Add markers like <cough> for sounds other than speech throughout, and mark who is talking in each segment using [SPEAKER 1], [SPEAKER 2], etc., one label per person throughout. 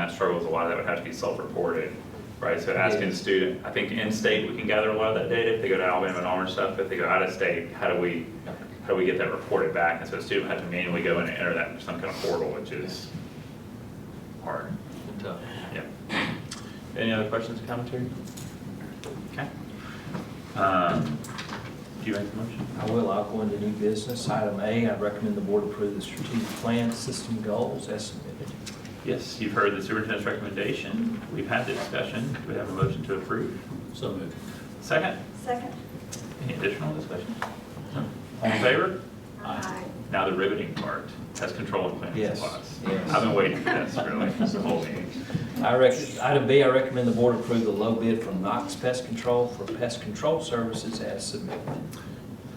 [SPEAKER 1] that struggles, a lot of that would have to be self-reported, right? So asking the student, I think in-state, we can gather a lot of that data, if they go to Alabama and Auburn stuff, if they go out of state, how do we, how do we get that reported back? And so a student would have to manually go in and enter that in some kind of portal, which is hard.
[SPEAKER 2] Tough.
[SPEAKER 1] Yeah. Any other questions or commentary? Okay. Um, Do you make the motion?
[SPEAKER 2] I will, I'll go into new business. Item A, I recommend the board approve the strategic plan system goals as submitted.
[SPEAKER 1] Yes, you've heard the superintendent's recommendation. We've had the discussion. Do we have a motion to approve?
[SPEAKER 2] So moved.
[SPEAKER 1] Second,
[SPEAKER 3] Second.
[SPEAKER 1] any additional discussion? No. All in favor?
[SPEAKER 2] Aye.
[SPEAKER 1] Now the riveting part, test control and planning
[SPEAKER 2] Yes,
[SPEAKER 1] supplies.
[SPEAKER 2] yes.
[SPEAKER 1] I've been waiting for this really, this whole meeting.
[SPEAKER 2] I rec, item B, I recommend the board approve the low bid from Knox Pest Control for pest control services as submitted.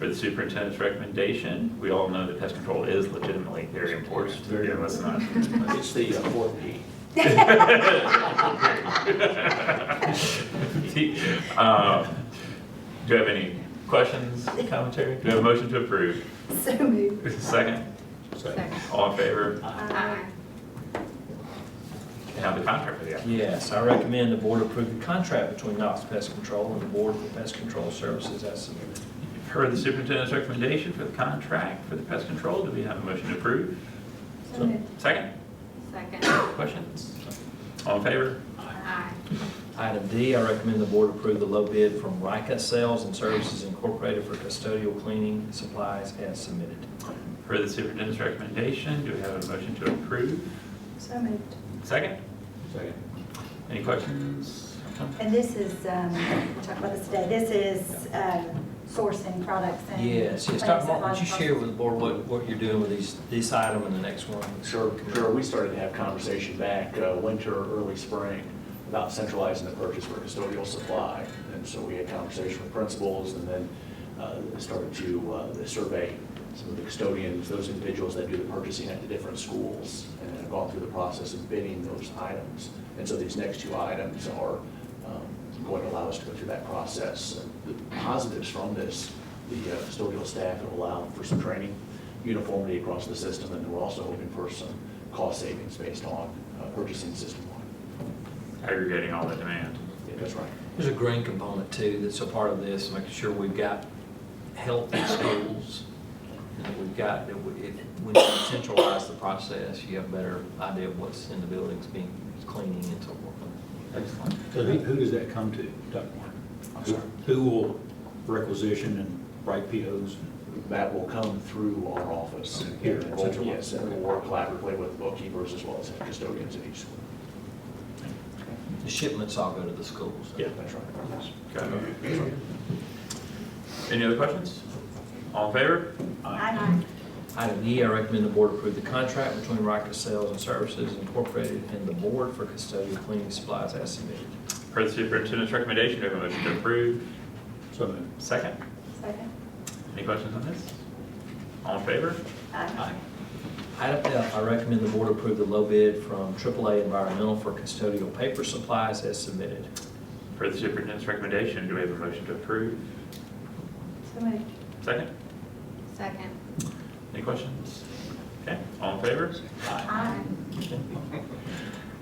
[SPEAKER 1] For the superintendent's recommendation, we all know that pest control is legitimately very important.
[SPEAKER 4] Very
[SPEAKER 1] Yeah, let's not. <laughs>
[SPEAKER 4] It's the uh, fourth P.
[SPEAKER 1] Um, Do you have any questions, commentary? Do you have a motion to approve?
[SPEAKER 3] <laughs> So moved.
[SPEAKER 1] Second,
[SPEAKER 3] Second.
[SPEAKER 1] all in favor?
[SPEAKER 3] Aye.
[SPEAKER 1] And now the contract for the applicant.
[SPEAKER 2] Yes, I recommend the board approve the contract between Knox Pest Control and the Board for Pest Control Services as submitted.
[SPEAKER 1] You've heard the superintendent's recommendation for the contract for the pest control. Do we have a motion to approve?
[SPEAKER 3] So moved.
[SPEAKER 1] Second,
[SPEAKER 5] Second.
[SPEAKER 1] questions? All in favor?
[SPEAKER 5] Aye.
[SPEAKER 2] Item D, I recommend the board approve the low bid from Rika Sales and Services Incorporated for custodial cleaning supplies as submitted.
[SPEAKER 1] For the superintendent's recommendation, do we have a motion to approve?
[SPEAKER 3] So moved.
[SPEAKER 1] Second,
[SPEAKER 4] Second.
[SPEAKER 1] any questions?
[SPEAKER 3] And this is, um, we talked about this today, this is um, sourcing products and.
[SPEAKER 2] Yes, yes, Dr. Martin, would you share with the board what, what you're doing with these, this item and the next one?
[SPEAKER 4] Sure, sure, we started to have conversation back uh, winter, early spring, about centralizing the purchase for custodial supply. And so we had conversation with principals and then uh, started to uh, survey some of the custodians, those individuals that do the purchasing at the different schools, and have gone through the process of bidding those items. And so these next two items are um, going to allow us to go through that process. The positives from this, the uh, custodial staff have allowed for some training, uniformity across the system, and we're also hoping for some cost savings based on uh, purchasing system-wide.
[SPEAKER 1] Aggregating all the demand.
[SPEAKER 4] Yeah, That's right.
[SPEAKER 2] There's a green component too, that's a part of this, making sure we've got healthy schools. And that we've got, that we- if, when you centralize the process, you have a better idea of what's in the buildings being, cleaning and so forth.
[SPEAKER 1] Excellent.
[SPEAKER 6] So who, who does that come to, Dr. Martin?
[SPEAKER 4] I'm sorry.
[SPEAKER 6] Who will requisition and write POs?
[SPEAKER 4] That will come through our office here in Central, yes, and we'll work collaboratively with bookkeepers as well as custodians at each school.
[SPEAKER 2] The shipments all go to the schools.
[SPEAKER 4] That's right. Yes.
[SPEAKER 1] Got it. Any other questions? All in favor?
[SPEAKER 3] Aye.
[SPEAKER 2] Item E, I recommend the board approve the contract between Riker Sales and Services Incorporated and the board for custodial cleaning supplies as submitted.
[SPEAKER 1] Per the superintendent's recommendation, do we have a motion to approve?
[SPEAKER 6] So moved.
[SPEAKER 1] Second,
[SPEAKER 3] Second.
[SPEAKER 1] any questions on this? All in favor?
[SPEAKER 3] Aye.
[SPEAKER 2] Item F, I recommend the board approve the low bid from AAA Environmental for custodial paper supplies as submitted.
[SPEAKER 1] Per the superintendent's recommendation, do we have a motion to approve?
[SPEAKER 3] So moved.
[SPEAKER 1] Second,
[SPEAKER 5] Second.
[SPEAKER 1] any questions? Okay, all in favor?
[SPEAKER 3] Aye.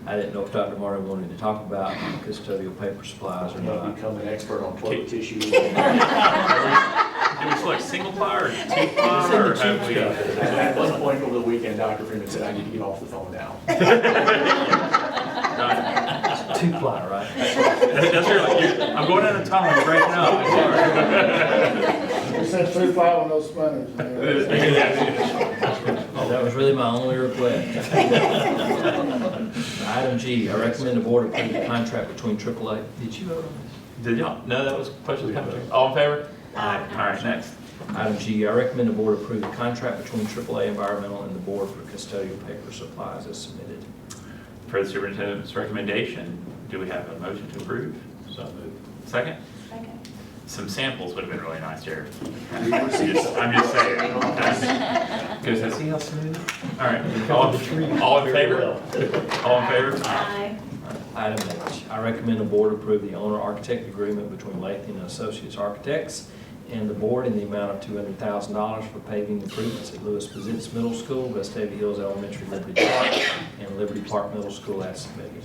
[SPEAKER 2] I didn't know if Dr. Martin wanted to talk about custodial paper supplies or
[SPEAKER 4] I'm gonna
[SPEAKER 2] not.
[SPEAKER 4] become an expert on toilet tissue. <laughs>
[SPEAKER 1] Do we select single ply or two ply or have we?
[SPEAKER 4] At one point over the weekend, Dr. Freeman said, I need to get off the phone now. <laughs>
[SPEAKER 1] Done.
[SPEAKER 2] Two ply, right?
[SPEAKER 1] That's your, you're- I'm going out of time right now, I'm sorry.
[SPEAKER 7] We sent three file on those spinners.
[SPEAKER 1] <laughs>
[SPEAKER 7] man.
[SPEAKER 2] That was really my only request.
[SPEAKER 3] <laughs>
[SPEAKER 2] Item G, I recommend the board approve the contract between AAA. Did you vote on this?
[SPEAKER 1] Did y'all, no, that was questions, comments. all in favor?
[SPEAKER 3] Aye.
[SPEAKER 1] All right, next.
[SPEAKER 2] Item G, I recommend the board approve the contract between AAA Environmental and the board for custodial paper supplies as submitted.
[SPEAKER 1] Per the superintendent's recommendation, do we have a motion to approve?
[SPEAKER 6] So moved.
[SPEAKER 1] Second,
[SPEAKER 3] <laughs> Second.
[SPEAKER 1] some samples would have been really nice here.
[SPEAKER 4] We received
[SPEAKER 1] <laughs>
[SPEAKER 4] some-
[SPEAKER 1] I'm just saying. Because that's,
[SPEAKER 2] how smooth?
[SPEAKER 1] all right, all, all in favor? All in favor?
[SPEAKER 3] Aye.
[SPEAKER 2] Uh, Item H, I recommend the board approve the owner-architect agreement between Lathan and Associates Architects and the board in the amount of two hundred thousand dollars for paving improvements at Lewis Positz Middle School, Vestavia Hills Elementary, Liberty Park, and Liberty Park Middle School as submitted.